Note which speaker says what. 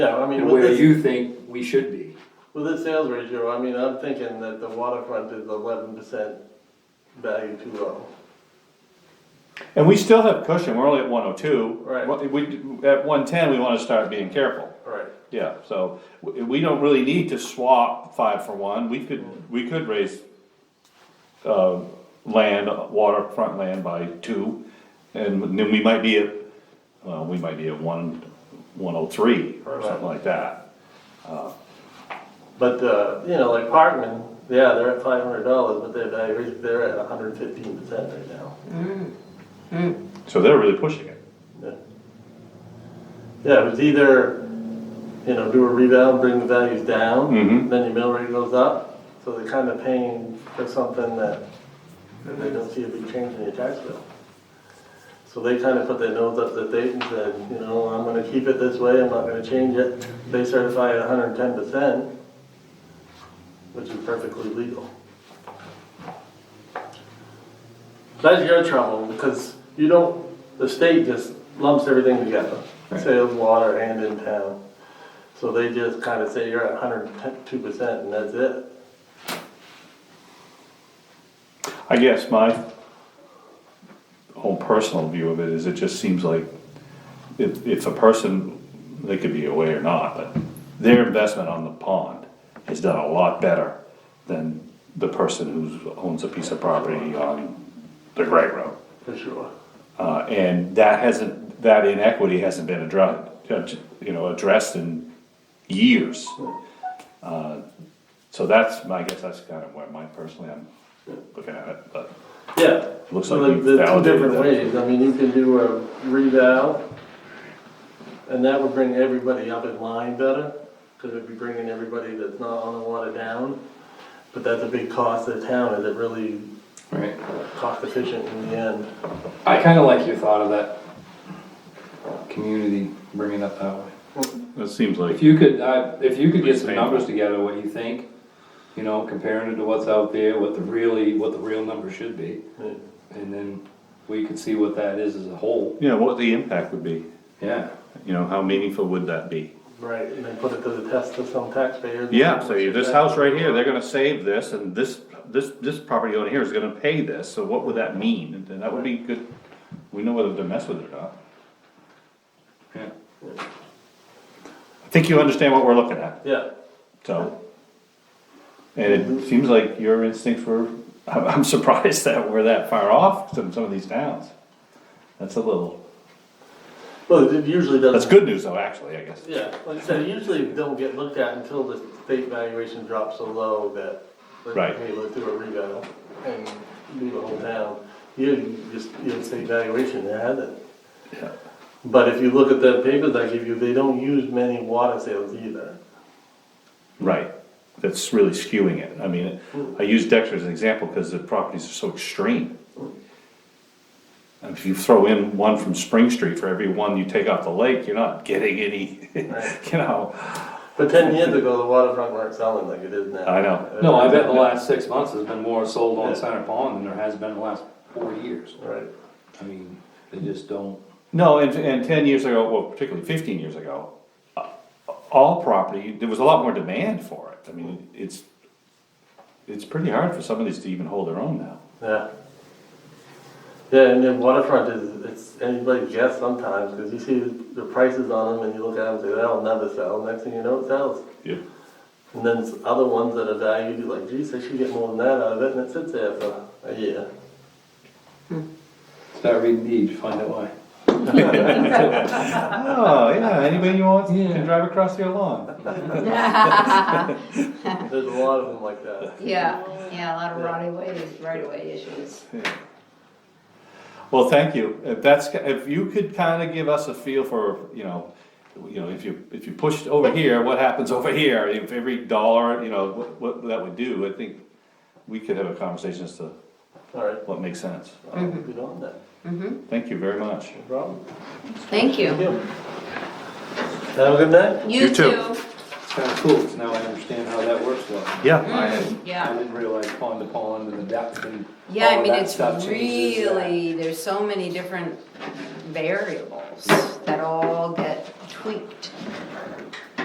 Speaker 1: Yeah, I mean,
Speaker 2: and
Speaker 1: with
Speaker 2: where
Speaker 1: this,
Speaker 2: you think we should be.
Speaker 1: with this sales ratio, I mean, I'm thinking that the waterfront is eleven percent value too low.
Speaker 3: And we still have cushion, we're only at one oh two.
Speaker 1: Right.
Speaker 3: We, at one ten, we wanna start being careful,
Speaker 1: Right.
Speaker 3: yeah, so, we, we don't really need to swap five for one, we could, we could raise. Uh, land, waterfront land by two, and then we might be at, well, we might be at one, one oh three, or something like that.
Speaker 1: But, uh, you know, like Parkman, yeah, they're at five hundred dollars, but their value, they're at hundred fifteen percent right now.
Speaker 3: So they're really pushing it,
Speaker 1: Yeah, Yeah, it was either, you know, do a rebound, bring the values down,
Speaker 3: Mhm.
Speaker 1: then your mill rate goes up, so they're kind of paying for something that that they don't see a big change in your tax bill. So they kind of put their nose up to date and said, you know, I'm gonna keep it this way, I'm not gonna change it. They certify at hundred and ten percent, which is perfectly legal. That's your trouble, because you don't, the state just lumps everything together, sales, water, and in town. So they just kinda say you're at hundred and two percent and that's it.
Speaker 3: I guess my. Whole personal view of it is it just seems like if, if a person, they could be away or not, but their investment on the pond has done a lot better than the person who owns a piece of property on the Great Road.
Speaker 1: For sure.
Speaker 3: Uh, and that hasn't, that inequity hasn't been addressed, you know, addressed in years. Uh, So that's, my- I guess that's kind of where my, personally, I'm looking at it, but.
Speaker 1: Yeah.
Speaker 3: Looks
Speaker 1: So
Speaker 3: like
Speaker 1: the-
Speaker 3: you've
Speaker 1: the two
Speaker 3: validated
Speaker 1: different
Speaker 3: that.
Speaker 1: ways, I mean, you can do a reval, and that would bring everybody up in line better, because it'd be bringing everybody that's not on the water down. But that's a big cost to the town, is it really
Speaker 2: Right.
Speaker 1: cost efficient in the end?
Speaker 2: I kinda like your thought of that community bringing up that way.
Speaker 3: It seems like.
Speaker 2: If you could, I, if you could get some
Speaker 3: Painful.
Speaker 2: numbers together, what you think, you know, comparing it to what's out there, what the really, what the real number should be.
Speaker 1: Yeah.
Speaker 2: And then we could see what that is as a whole.
Speaker 3: Yeah, what the impact would be,
Speaker 2: Yeah.
Speaker 3: you know, how meaningful would that be?
Speaker 1: Right, and then put it to the test of some taxpayers.
Speaker 3: Yeah, so you- this house right here, they're gonna save this, and this, this, this property owner here is gonna pay this, so what would that mean? And then that would be good, we know whether to mess with it or not.
Speaker 2: Yeah.
Speaker 3: I think you understand what we're looking at,
Speaker 1: Yeah,
Speaker 3: so. And it seems like your instincts were, I'm, I'm surprised that we're that far off from some of these towns. That's a little,
Speaker 1: well, it usually doesn't.
Speaker 3: that's good news though, actually, I guess.
Speaker 1: Yeah, like I said, usually they don't get looked at until the state valuation drops so low that,
Speaker 3: Right.
Speaker 1: like, hey, let's do a revale and do the whole town. You, you just, you have state valuation, they had it.
Speaker 3: Yeah.
Speaker 1: But if you look at the papers I give you, they don't use many water sales either.
Speaker 3: Right, that's really skewing it, I mean, I use Dexter as an example because the properties are so extreme. And If you throw in one from Spring Street for every one you take off the lake, you're not getting any, you know,
Speaker 1: But ten years ago, the waterfront weren't selling like it is now. Uh,
Speaker 3: I know.
Speaker 2: No, I bet the last six months has been more sold on Center Pond than there has been in the last four years.
Speaker 1: Right,
Speaker 2: I mean, they just don't.
Speaker 3: No, and, and ten years ago, well, particularly fifteen years ago, uh, all property, there was a lot more demand for it, I mean, it's, it's pretty hard for some of these to even hold their own now.
Speaker 1: yeah. Yeah, and then waterfront is, it's anybody's guess sometimes, cause you see the prices on them and you look at them and say, that'll never sell, next thing you know, it sells.
Speaker 3: Yep.
Speaker 1: And then there's other ones that are valued, you're like, geez, I should get more than that out of it, and it sits there for a year.
Speaker 2: Start reading deed, find out why.
Speaker 3: Oh, yeah, anybody you want can drive across your lawn.
Speaker 4: Yeah,
Speaker 1: There's a lot of them like that.
Speaker 4: yeah, a lot of right away, right away issues.
Speaker 3: Well, thank you. If that's, if you could kinda give us a feel for, you know, you know, if you, if you pushed over here, what happens over here? If every dollar, you know, what, what that would do, I think we could have a conversation as to
Speaker 1: All right,
Speaker 3: what makes sense.
Speaker 1: I'll get on that,
Speaker 3: Thank you very much.
Speaker 1: no problem.
Speaker 4: Mm-hmm. Thank
Speaker 1: Thank
Speaker 4: you.
Speaker 1: you. Have a good night.
Speaker 3: You too.
Speaker 2: It's kinda cool, 'cause now I understand how that works well.
Speaker 3: Yeah.
Speaker 2: I
Speaker 4: Yeah,
Speaker 2: didn't realize pond to pond and the depth and.
Speaker 4: yeah,
Speaker 2: all
Speaker 4: I
Speaker 2: of
Speaker 4: mean,
Speaker 2: that
Speaker 4: it's
Speaker 2: stuff changes, yeah.
Speaker 4: really, there's so many different variables that all get tweaked.